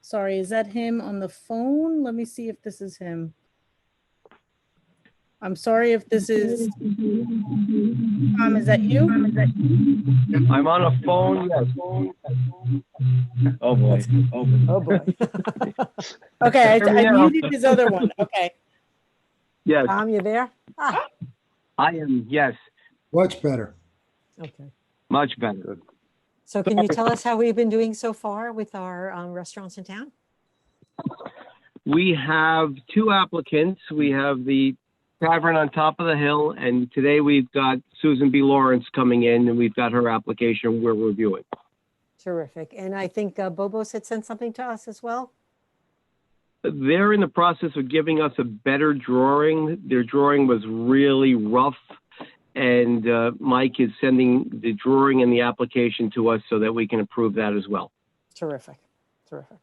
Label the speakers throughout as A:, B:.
A: Sorry, is that him on the phone? Let me see if this is him. I'm sorry if this is. Tom, is that you?
B: I'm on a phone, yes. Oh, boy. Oh, boy.
C: Oh, boy.
A: Okay, I- I
B: Yeah.
A: muted his other one. Okay.
B: Yes,
C: Tom, you there? Ah,
B: I am, yes,
D: Much better.
C: okay.
B: much better.
C: So can you tell us how we've been doing so far with our um, restaurants in town?
B: We have two applicants. We have the Tavern on Top of the Hill, and today we've got Susan B. Lawrence coming in, and we've got her application we're reviewing.
C: Terrific. And I think uh, Bobos had sent something to us as well.
B: They're in the process of giving us a better drawing. Their drawing was really rough, and uh, Mike is sending the drawing and the application to us so that we can approve that as well.
C: Terrific, terrific.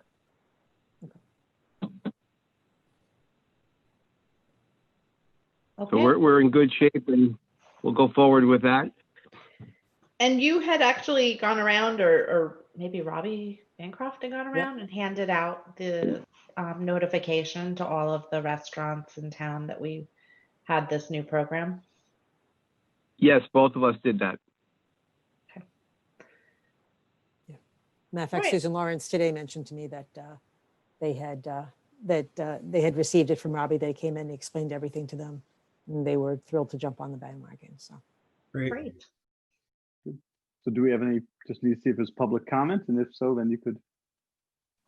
B: So
E: Okay,
B: we're, we're in good shape, and we'll go forward with that.
E: and you had actually gone around, or, or maybe Robbie Bancroft had gone around and handed out the um, notification to all of the restaurants in town that we had this new program.
B: Yes, both of us did that.
C: Matter of fact,
E: Right.
C: Susan Lawrence today mentioned to me that uh, they had, uh, that uh, they had received it from Robbie. They came in, he explained everything to them. And they were thrilled to jump on the bandwagon, so.
B: Mm-hmm.
D: Great.
E: Great.
F: So do we have any, just need to see if there's public comment, and if so, then you could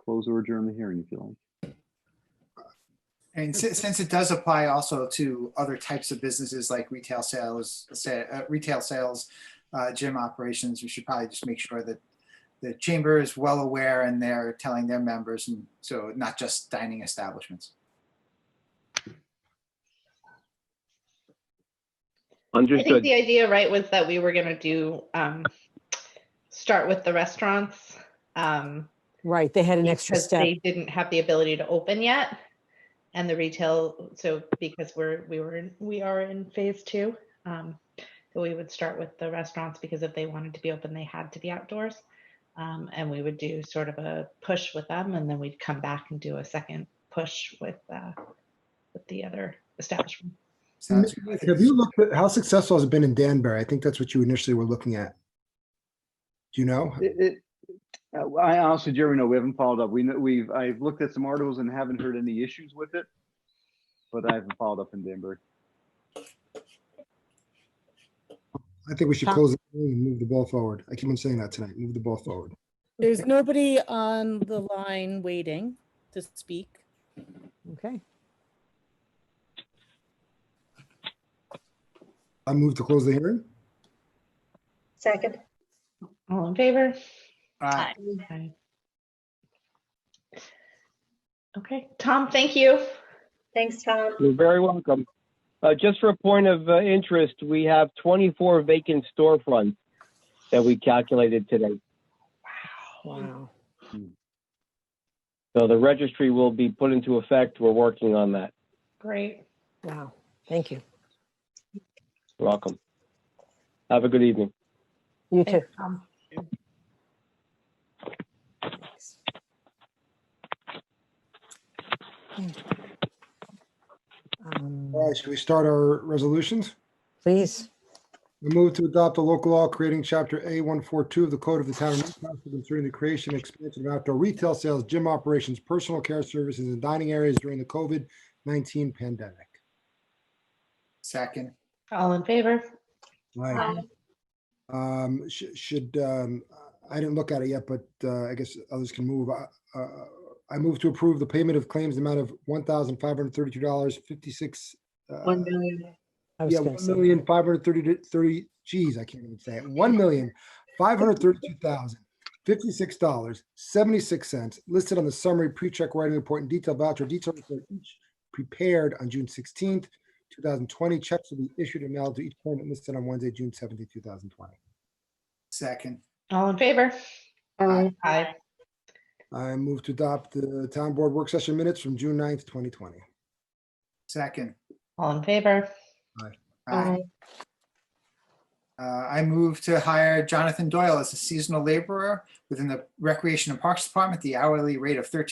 F: close or adjourn the hearing if you like.
G: And si- since it does apply also to other types of businesses like retail sales, sa- uh, retail sales, uh, gym operations, we should probably just make sure that the chamber is well aware and they're telling their members, and so not just dining establishments.
E: I think
B: Understood.
E: the idea, right, was that we were going to do um, start with the restaurants um,
C: Right, they had an extra
E: because
C: step.
E: they didn't have the ability to open yet, and the retail. So because we're we were in- we are in phase two, um, so we would start with the restaurants because if they wanted to be open, they had to be outdoors, um, and we would do sort of a push with them, and then we'd come back and do a second push with uh, with the other establishment.
G: Sounds-
D: Have you looked at how successful has it been in Danbury? I think that's what you initially were looking at. Do you know?
F: It, it, uh, I honestly, Jeremy, no, we haven't followed up. We, kn- we've, I've looked at some articles and haven't heard any issues with it. But I haven't followed up in Denver.
D: I think we should
C: Tom-
D: close the meeting and move the ball forward. I keep on saying that tonight. Move the ball forward.
A: There's nobody on the line waiting to speak.
C: Okay,
D: I move to close the hearing.
H: Second.
E: All in favor?
G: Uh,
E: Okay. Okay, Tom, thank you.
H: Thanks, Tom.
B: You're very welcome. Uh, just for a point of uh, interest, we have 24 vacant storefronts that we calculated today.
C: wow.
B: So the registry will be put into effect. We're working on that.
E: Great.
C: Wow, thank you.
B: You're welcome. Have a good evening.
C: You too.
E: Thanks, Tom.
C: Thanks. Um,
D: All right, should we start our resolutions?
C: Please,
D: We move to adopt a local law creating chapter A one four two of the Code of the Town of Newcastle concerning the creation and expansion of outdoor retail sales, gym operations, personal care services, and dining areas during the COVID nineteen pandemic.
G: Second,
E: All in favor?
D: Right.
H: Aye.
D: Um, sh- should, um, I didn't look at it yet, but, uh, I guess others can move. I- Uh, I move to approve the payment of claims amount of one thousand five hundred thirty-two dollars fifty-six. uh,
H: One million.
C: I was
D: Yeah,
C: going to
D: one
C: say,
D: million five hundred thirty, thirty, geez, I can't even say it. One million five hundred thirty-two thousand fifty-six dollars seventy-six cents listed on the summary pre-check writing report and detailed voucher detail report each prepared on June sixteenth, two thousand twenty. Checks will be issued and mailed to each claimant listed on Wednesday, June seventeenth, two thousand twenty.
G: second,
E: All in favor?
H: Aye.
E: Aye.
D: I move to adopt the town board work session minutes from June 9th, twenty twenty.
G: second.
E: All in favor?
G: Aye. Uh, I move to hire Jonathan Doyle as a seasonal laborer within the Recreation and Parks Department, the hourly rate of thirteen